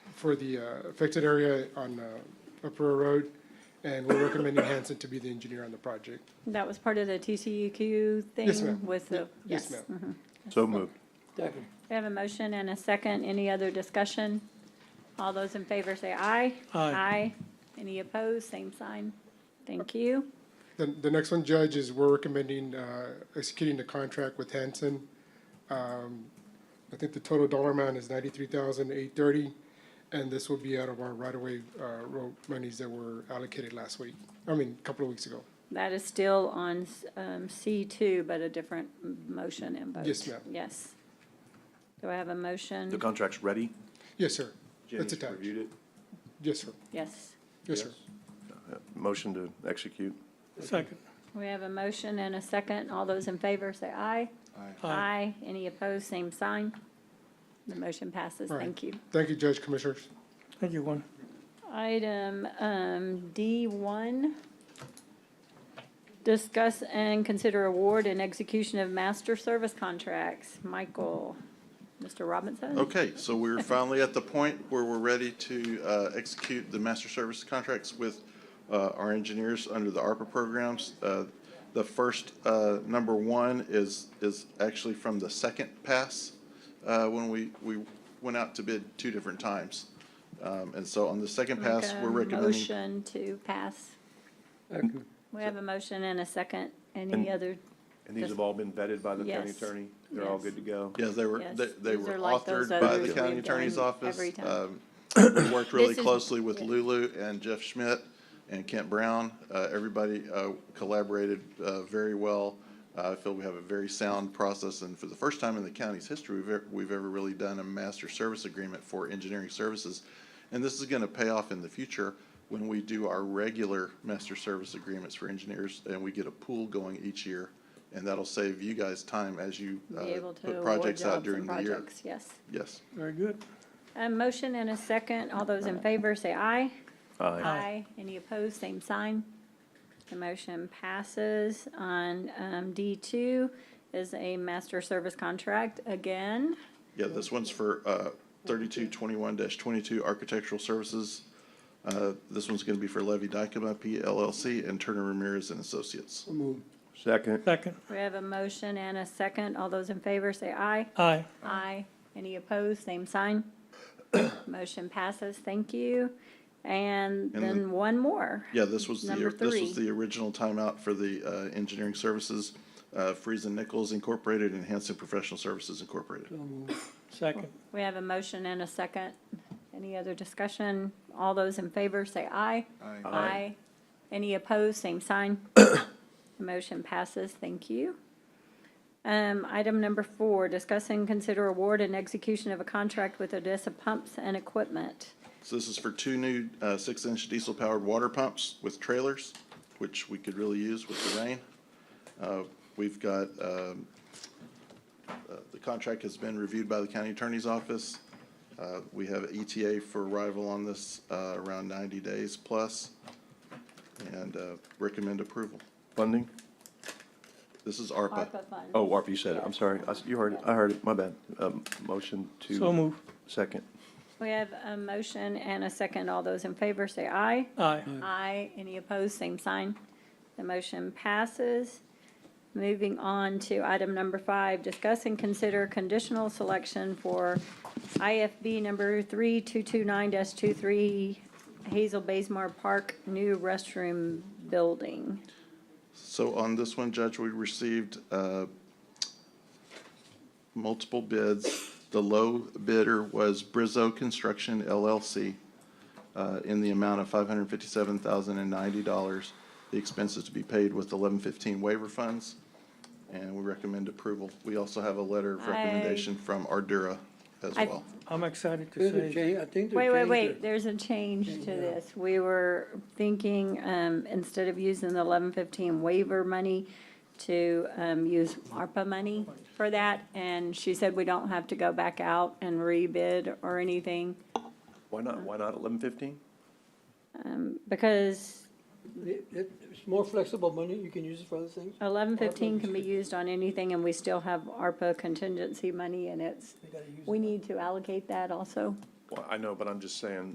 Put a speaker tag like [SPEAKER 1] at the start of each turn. [SPEAKER 1] for the uh, affected area on uh, Upper Road, and we're recommending Hanson to be the engineer on the project.
[SPEAKER 2] That was part of the TCEQ thing?
[SPEAKER 1] Yes, ma'am.
[SPEAKER 2] With the,
[SPEAKER 1] Yes,
[SPEAKER 2] yes. mm-hmm.
[SPEAKER 1] ma'am.
[SPEAKER 3] So moved.
[SPEAKER 4] Second.
[SPEAKER 2] We have a motion and a second. Any other discussion? All those in favor say aye.
[SPEAKER 4] Aye.
[SPEAKER 2] Aye. Any opposed? Same sign. Thank you.
[SPEAKER 1] The, the next one, Judge, is we're recommending uh, executing the contract with Hanson. Um, I think the total dollar amount is ninety-three thousand eight thirty, and this will be out of our right-of-way uh, road monies that were allocated last week, I mean, a couple of weeks ago.
[SPEAKER 2] That is still on um, C2, but a different m- motion and vote.
[SPEAKER 1] Yes, ma'am.
[SPEAKER 2] Yes. Do I have a
[SPEAKER 3] The
[SPEAKER 2] motion?
[SPEAKER 3] contract's ready?
[SPEAKER 1] Yes, sir.
[SPEAKER 5] Jenny's
[SPEAKER 1] That's attached.
[SPEAKER 5] reviewed it?
[SPEAKER 1] Yes, sir.
[SPEAKER 2] Yes.
[SPEAKER 1] Yes, sir.
[SPEAKER 3] Uh, Motion to execute?
[SPEAKER 4] Second.
[SPEAKER 2] We have a motion and a second. All those in favor say aye.
[SPEAKER 4] Aye.
[SPEAKER 2] Any opposed? Same sign. The motion passes.
[SPEAKER 1] All right.
[SPEAKER 2] Thank you.
[SPEAKER 1] Thank you, Judge, Commissioners.
[SPEAKER 4] Thank you, Gwen.
[SPEAKER 2] Item um, D1, discuss and consider award and execution of master service contracts. Michael, Mr. Robinson?
[SPEAKER 6] Okay, so we're finally at the point where we're ready to uh, execute the master service contracts with uh, our engineers under the ARPA programs. Uh, The first, uh, number one, is, is actually from the second pass, uh, when we, we went out to bid two different times. Um, And so on the second pass,
[SPEAKER 2] Make a
[SPEAKER 6] we're recommending
[SPEAKER 2] Motion to pass.
[SPEAKER 4] Second.
[SPEAKER 2] We have a motion and a second. Any
[SPEAKER 3] And-
[SPEAKER 2] other,
[SPEAKER 3] And these have all been vetted by the county
[SPEAKER 2] Yes.
[SPEAKER 3] attorney? They're all
[SPEAKER 2] Yes.
[SPEAKER 3] good to go?
[SPEAKER 6] Yeah, they were,
[SPEAKER 2] Yes,
[SPEAKER 6] they, they
[SPEAKER 2] these
[SPEAKER 6] were
[SPEAKER 2] are like those
[SPEAKER 6] authored by
[SPEAKER 2] others
[SPEAKER 6] the county
[SPEAKER 2] we've
[SPEAKER 6] attorney's
[SPEAKER 2] done
[SPEAKER 6] office.
[SPEAKER 2] every time.
[SPEAKER 6] Um, We worked really
[SPEAKER 2] This is-
[SPEAKER 6] closely with
[SPEAKER 2] yeah.
[SPEAKER 6] Lulu and Jeff Schmidt and Kent Brown. Uh, everybody, uh, collaborated, uh, very well. Uh, I feel we have a very sound process, and for the first time in the county's history, we've, e- we've ever really done a master service agreement for engineering services. And this is gonna pay off in the future when we do our regular master service agreements for engineers, and we get a pool going each year. And that'll save you guys time as you,
[SPEAKER 2] be
[SPEAKER 6] uh,
[SPEAKER 2] able to
[SPEAKER 6] put
[SPEAKER 2] award
[SPEAKER 6] projects out
[SPEAKER 2] jobs
[SPEAKER 6] during
[SPEAKER 2] and
[SPEAKER 6] the year.
[SPEAKER 2] projects? Yes.
[SPEAKER 6] Yes.
[SPEAKER 4] Very good.
[SPEAKER 2] A motion and a second. All those in favor say aye.
[SPEAKER 3] Aye.
[SPEAKER 2] Aye. Any opposed, same sign. The motion passes. On um, D2 is a master service contract again.
[SPEAKER 6] Yeah, this one's for uh, 3221-22 Architectural Services. Uh, This one's going to be for Levy Dykema P LLC and Turner Ramirez and Associates.
[SPEAKER 3] Second?
[SPEAKER 4] Second.
[SPEAKER 2] We have a motion and a second. All those in favor say aye.
[SPEAKER 4] Aye.
[SPEAKER 2] Aye. Any opposed, same sign. Motion passes, thank you. And
[SPEAKER 6] And the-
[SPEAKER 2] then one more.
[SPEAKER 6] Yeah, this was the,
[SPEAKER 2] Number
[SPEAKER 6] this
[SPEAKER 2] three.
[SPEAKER 6] was the original timeout for the uh, engineering services, uh, Friesen Nichols Incorporated and Hanson Professional Services Incorporated.
[SPEAKER 4] Second.
[SPEAKER 2] We have a motion and a second. Any other discussion? All those in favor say aye.
[SPEAKER 5] Aye.
[SPEAKER 2] Aye. Any opposed, same sign. Motion passes, thank you. Um, item number four, discuss and consider award and execution of a contract with Odessa Pumps and Equipment.
[SPEAKER 6] So this is for two new uh, six-inch diesel-powered water pumps with trailers, which we could really use with the rain. Uh, We've got, um, uh, the contract has been reviewed by the county attorney's office. Uh, We have ETA for arrival on this uh, around 90 days plus, and uh, recommend approval.
[SPEAKER 3] Funding?
[SPEAKER 6] This is ARPA.
[SPEAKER 2] ARPA funds.
[SPEAKER 3] Oh, Warp, you said it. I'm sorry. I s- You heard it. I heard it. My bad. Um, Motion to?
[SPEAKER 4] So move.
[SPEAKER 3] Second.
[SPEAKER 2] We have a motion and a second. All those in favor say aye.
[SPEAKER 4] Aye.
[SPEAKER 2] Aye. Any opposed, same sign. The motion passes. Moving on to item number five, discuss and consider conditional selection for IFB number 3229-23 Hazel Baysmar Park new restroom building.
[SPEAKER 6] So on this one, Judge, we received uh, multiple bids. The low bidder was Brizzo Construction LLC uh, in the amount of $557,090. The expenses to be paid with 1115 waiver funds, and we recommend approval. We also have a letter of
[SPEAKER 2] I-
[SPEAKER 6] recommendation from Ardura as
[SPEAKER 2] I-
[SPEAKER 6] well.
[SPEAKER 4] I'm excited to
[SPEAKER 7] There's a
[SPEAKER 4] say,
[SPEAKER 7] change, I think
[SPEAKER 2] Wait,
[SPEAKER 7] there's
[SPEAKER 2] wait, wait, there's a change to this. We were thinking, um, instead of using the eleven fifteen waiver money, to, um, use ARPA money for that, and she said we don't have to go back out and rebid or anything,
[SPEAKER 3] Why not, why not 1115?
[SPEAKER 2] because
[SPEAKER 7] It- it- It's more flexible money, you can use it for other things.
[SPEAKER 2] eleven fifteen can be used on anything, and we still have ARPA contingency money, and it's,
[SPEAKER 7] We gotta use
[SPEAKER 2] we
[SPEAKER 7] it.
[SPEAKER 2] need to allocate that also.
[SPEAKER 3] Well, I know, but I'm just saying,